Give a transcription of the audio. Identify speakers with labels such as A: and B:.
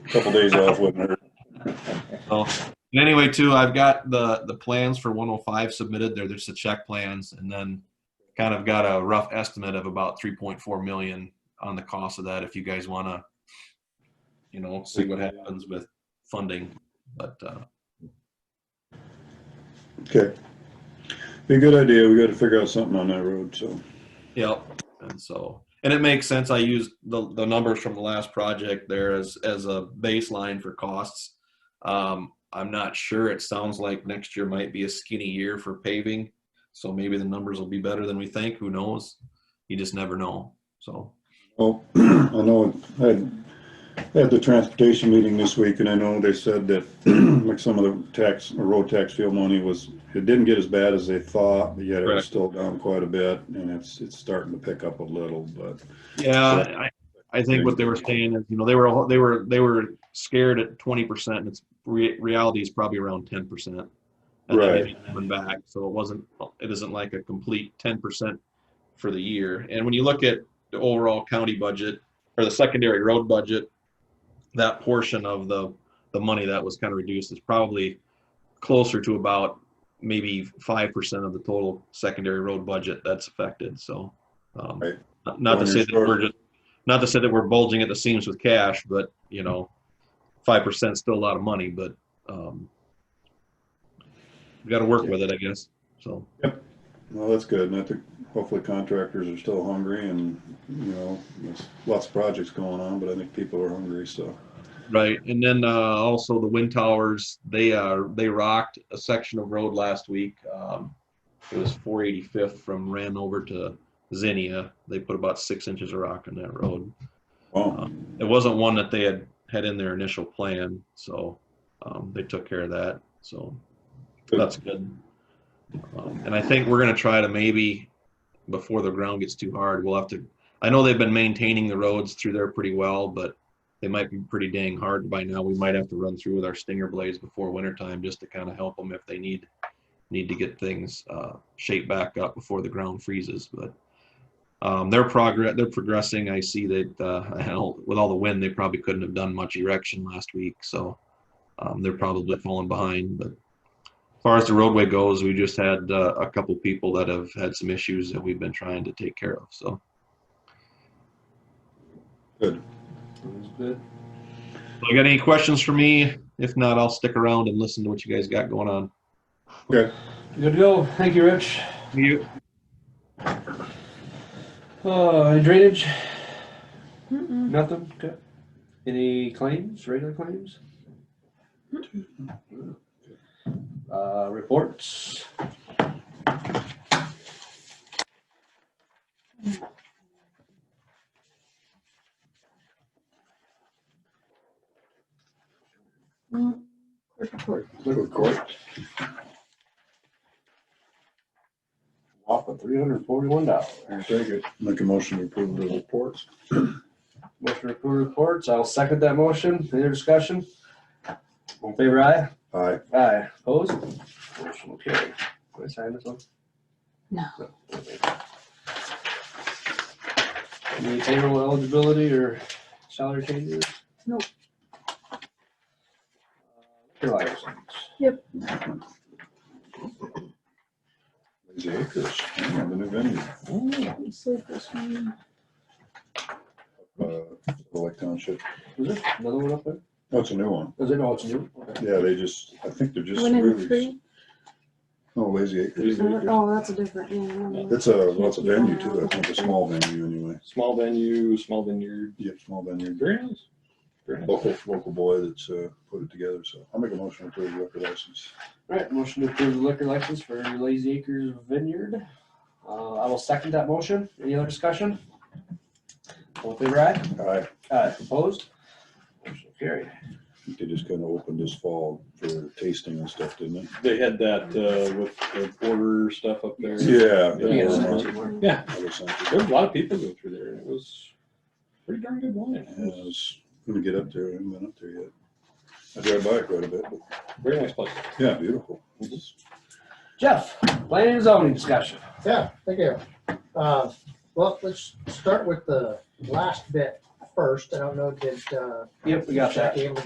A: Couple days off wouldn't hurt.
B: So, and anyway, too, I've got the the plans for 105 submitted. They're just the check plans, and then kind of got a rough estimate of about 3.4 million on the cost of that. If you guys want to, you know, see what happens with funding, but uh,
A: Okay. Be a good idea. We gotta figure out something on that road, so.
B: Yep. And so, and it makes sense. I used the, the numbers from the last project there as, as a baseline for costs. Um, I'm not sure. It sounds like next year might be a skinny year for paving. So maybe the numbers will be better than we think. Who knows? You just never know. So,
A: Well, I know, I had, I had the transportation meeting this week, and I know they said that, like, some of the tax, or road tax fuel money was, it didn't get as bad as they thought, but yet it
B: Correct.
A: was still down quite a bit, and it's, it's starting to pick up a little, but,
B: yeah, I, I think what they were saying is, you know, they were, they were, they were scared at 20% and it's re- reality is probably around 10%. And then
A: Right.
B: maybe coming back. So it wasn't, it isn't like a complete 10% for the year. And when you look at the overall county budget or the secondary road budget, that portion of the, the money that was kind of reduced is probably closer to about maybe 5% of the total secondary road budget that's affected. So, um,
A: Right.
B: not- not to
A: Well,
B: say
A: you're
B: that we're
A: short.
B: just, not to say that we're bulging at the seams with cash, but you know, 5% is still a lot of money, but, um, we got to work with it, I guess. So,
A: well, that's good, and I think hopefully contractors are still hungry, and, you know, there's lots of projects going on, but I think people are hungry, so.
B: right. And then, uh, also the wind towers, they, uh, they rocked a section of road last week. Um, it was 485th from Ran over to Zinnia. They put about six inches of rock on that road.
A: Wow,
B: It wasn't one that they had had in their initial plan. So, um, they took care of that. So, That's good. Um, and I think we're gonna try to maybe, before the ground gets too hard, we'll have to, I know they've been maintaining the roads through there pretty well, but they might be pretty dang hard by now. We might have to run through with our stinger blades before wintertime just to kind of help them if they need, need to get things, uh, shaped back up before the ground freezes, but. Um, their progress, they're progressing. I see that, uh, hell, with all the wind, they probably couldn't have done much erection last week, so. Um, they're probably falling behind, but as far as the roadway goes, we just had uh, a couple people that have had some issues that we've been trying to take care of. So
A: good.
B: So you got any questions for me? If not, I'll stick around and listen to what you guys got going on.
A: Okay,
C: Good to go. Thank you, Rich.
B: You,
C: Uh, any drainage?
D: Mm-mm.
C: Nothing? Okay. Any claims, regular claims? Uh, reports?
D: Mm. Clerk report.
C: Report. Off of three hundred and forty-one dollars.
A: I'll take it. Make a motion to approve the reports.
C: Motion to approve reports. I'll second that motion. Any discussion? All in favor, aye?
A: Aye.
C: Aye. Opposed? Motion carried. Can I sign this one?
D: No.
C: Any payroll eligibility or salary changes?
D: Nope.
C: Your license.
A: Lazy Acres, yeah, the new venue,
D: Let's leave this one.
A: uh, Lake Township.
C: Is there another one up there?
A: That's a new one.
C: Is it, oh, it's new? Okay.
A: Yeah, they just, I think they're just
D: One and
A: really,
D: three.
A: oh, Lazy Acres.
D: Oh, that's a different, yeah. I don't know.
A: It's a, well, it's a venue too, I think, a small venue anyway.
E: small venue, small vineyard.
A: Yep, small venue.
E: Very nice. Very nice.
A: Local, local boy that's, uh, put it together, so I'll make a motion to approve the liquor license.
C: All right, motion to approve the liquor license for Lazy Acres Vineyard. Uh, I will second that motion. Any other discussion? All in favor, aye?
A: I,
C: Aye. Opposed? Motion carried.
A: think they just kinda opened this fall for tasting and stuff, didn't
E: They had that uh, with the border stuff up there.
A: it? Yeah.
E: Yeah.
A: Yeah.
E: Yeah.
A: I guess that's
E: There
A: it.
E: was a lot of people go through there, and it was pretty darn good wine.
A: Yeah,
E: It
A: I
E: was
A: was gonna get up there, I haven't been up there yet. I drive by it quite a bit, but,
E: a very nice place.
A: yeah, beautiful.
C: Jeff, planning and zoning discussion.
F: Yeah, thank you. Uh, Well, let's start with the last bit first. I don't know, did. uh,
C: Yep, we got that.
F: Jackie,